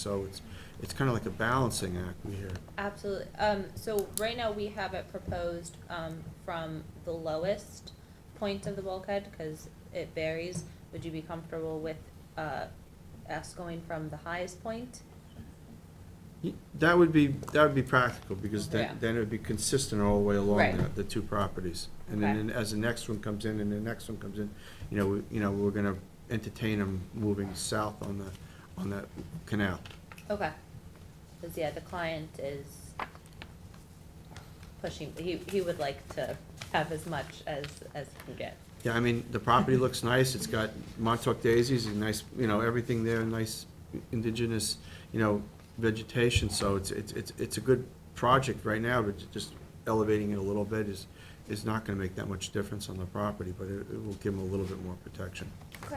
So it's, it's kind of like a balancing act we hear. Absolutely. Um, so right now we have it proposed, um, from the lowest point of the bulkhead, cause it varies. Would you be comfortable with, uh, us going from the highest point? That would be, that would be practical, because Yeah. then, then it would be consistent all the way along Right. the, the two properties. And then Okay. as the next one comes in and the next one comes in, you know, we- you know, we're gonna entertain them moving south on the, on that canal. Okay. Cause yeah, the client is pushing, he, he would like to have as much as, as he can get. Yeah, I mean, the property looks nice, it's got Montauk daisies and nice, you know, everything there, nice indigenous, you know, vegetation, so it's, it's, it's, it's a good project right now, but just elevating it a little bit is, is not gonna make that much difference on the property, but it, it will give them a little bit more protection. Okay.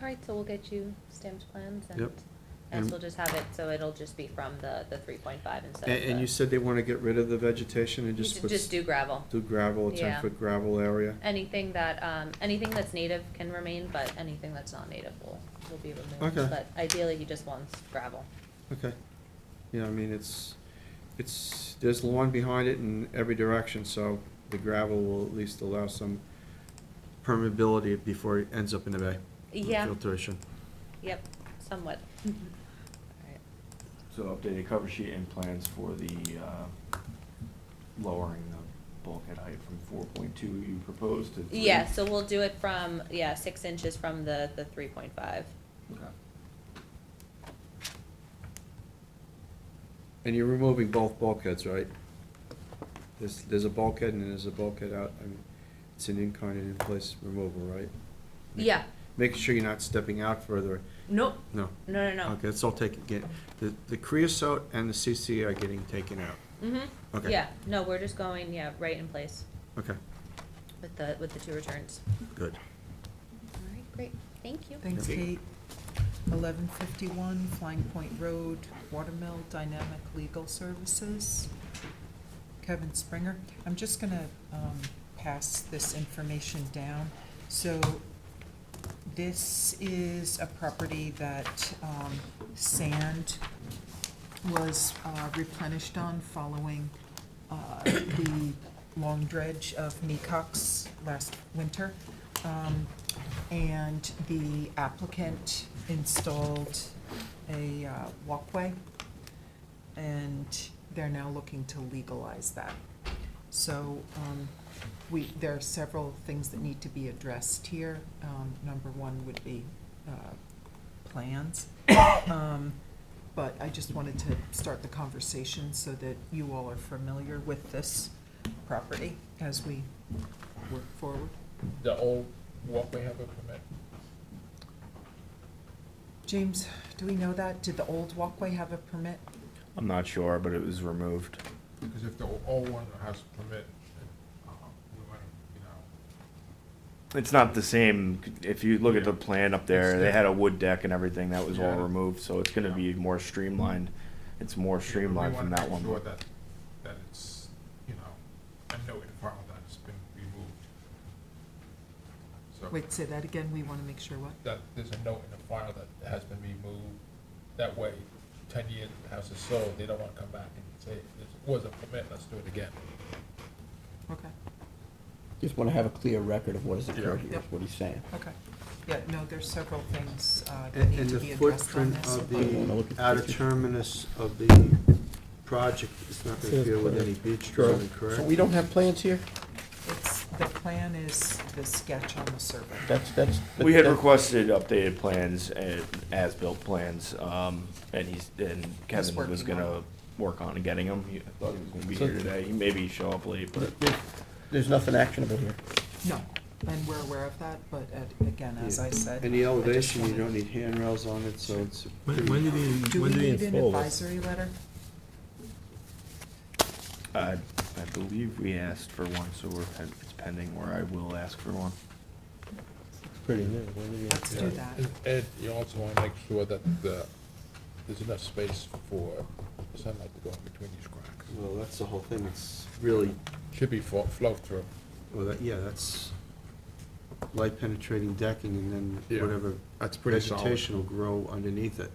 All right, so we'll get you stamped plans and, Yep. and And- we'll just have it, so it'll just be from the, the three point five instead And, of the. and you said they wanna get rid of the vegetation and You just should put. Just do gravel. do gravel, a Yeah. ten-foot gravel area? Anything that, um, anything that's native can remain, but anything that's not native will, will be removed. Okay. But ideally, he just wants gravel. Okay. Yeah, I mean, it's, it's, there's lawn behind it in every direction, so the gravel will at least allow some permeability before it ends up in the bay. Yeah. Filtration. Yep, somewhat. Alright. So updated cover sheet and plans for the, uh, lowering the bulkhead height from four point two you proposed to three? Yeah, so we'll do it from, yeah, six inches from the, the three point five. Okay. And you're removing both bulkheads, right? There's, there's a bulkhead and there's a bulkhead out, I mean, it's an in-kind and in-place removal, right? Yeah, Making sure you're not stepping out further, nope, no. no, no, no. Okay, it's all taken, get, the, the creosote and the CC are getting taken out. Mm-hmm, Okay. yeah, no, we're just going, yeah, right in place Okay, with the, with the two returns. good. Alright, great, thank you. Thanks, Okay. Kate. Eleven fifty-one Flying Point Road, Watermill Dynamic Legal Services. Kevin Springer. I'm just gonna, um, pass this information down. So this is a property that, um, sand was uh, replenished on following, uh, the long dredge of Mecox last winter. Um, and the applicant installed a uh, walkway, and they're now looking to legalize that. So um, we, there are several things that need to be addressed here. Um, Number one would be uh, plans. Um, But I just wanted to start the conversation so that you all are familiar with this property as we work forward. the old walkway have a permit? James, do we know that? Did the old walkway have a permit? I'm not sure, but it was removed. Because if the old one has a permit, uh, we might, you know, It's not the same, if you look at the plan up there, It's they had a wood deck and everything, that was all Yeah. removed, so it's gonna be more streamlined. It's more streamlined from that We one. wanna make sure that, that it's, you know, a noted file that it's been removed. So Wait, say that again, we want to make sure what? that there's a note in the file that has been removed. That way, ten years the house is sold, they don't wanna come back and say, this was a permit, let's do it again. Okay, Just want to have a clear record of what has occurred Yeah. here, is what he's saying. okay. Yeah, no, there's several things uh, that And need and to the be addressed on footprint this. of I wanna look the at the outer picture. terminus of the project is not gonna Says deal with correct. any beach drilling, So we correct? don't have plans here? It's, the plan is the sketch on the survey. That's, that's. We had that- requested updated plans and as-built plans, um, and he's, and Kevin was working on gonna work on getting them. He- I thought he was gonna be So- here today, he maybe show up late, but. there- There's nothing actionable here. No, and we're aware of that, but uh, again, as I said. And the I just elevation, you wanted- don't need handrails on it, so it's. When, when did he, Do we when did he need an install this? advisory letter? I, I believe we asked for one, so we're, pen- it's pending, or I will ask for one. It's pretty new. When did he- Let's do that. And Ed, you also want to make sure that the, there's enough space for sunlight to go in between these cracks. Well, that's the whole thing, it's really, Should be fo- flow through. well, that, yeah, that's light penetrating decking and then Yeah. whatever That's vegetation will grow underneath it.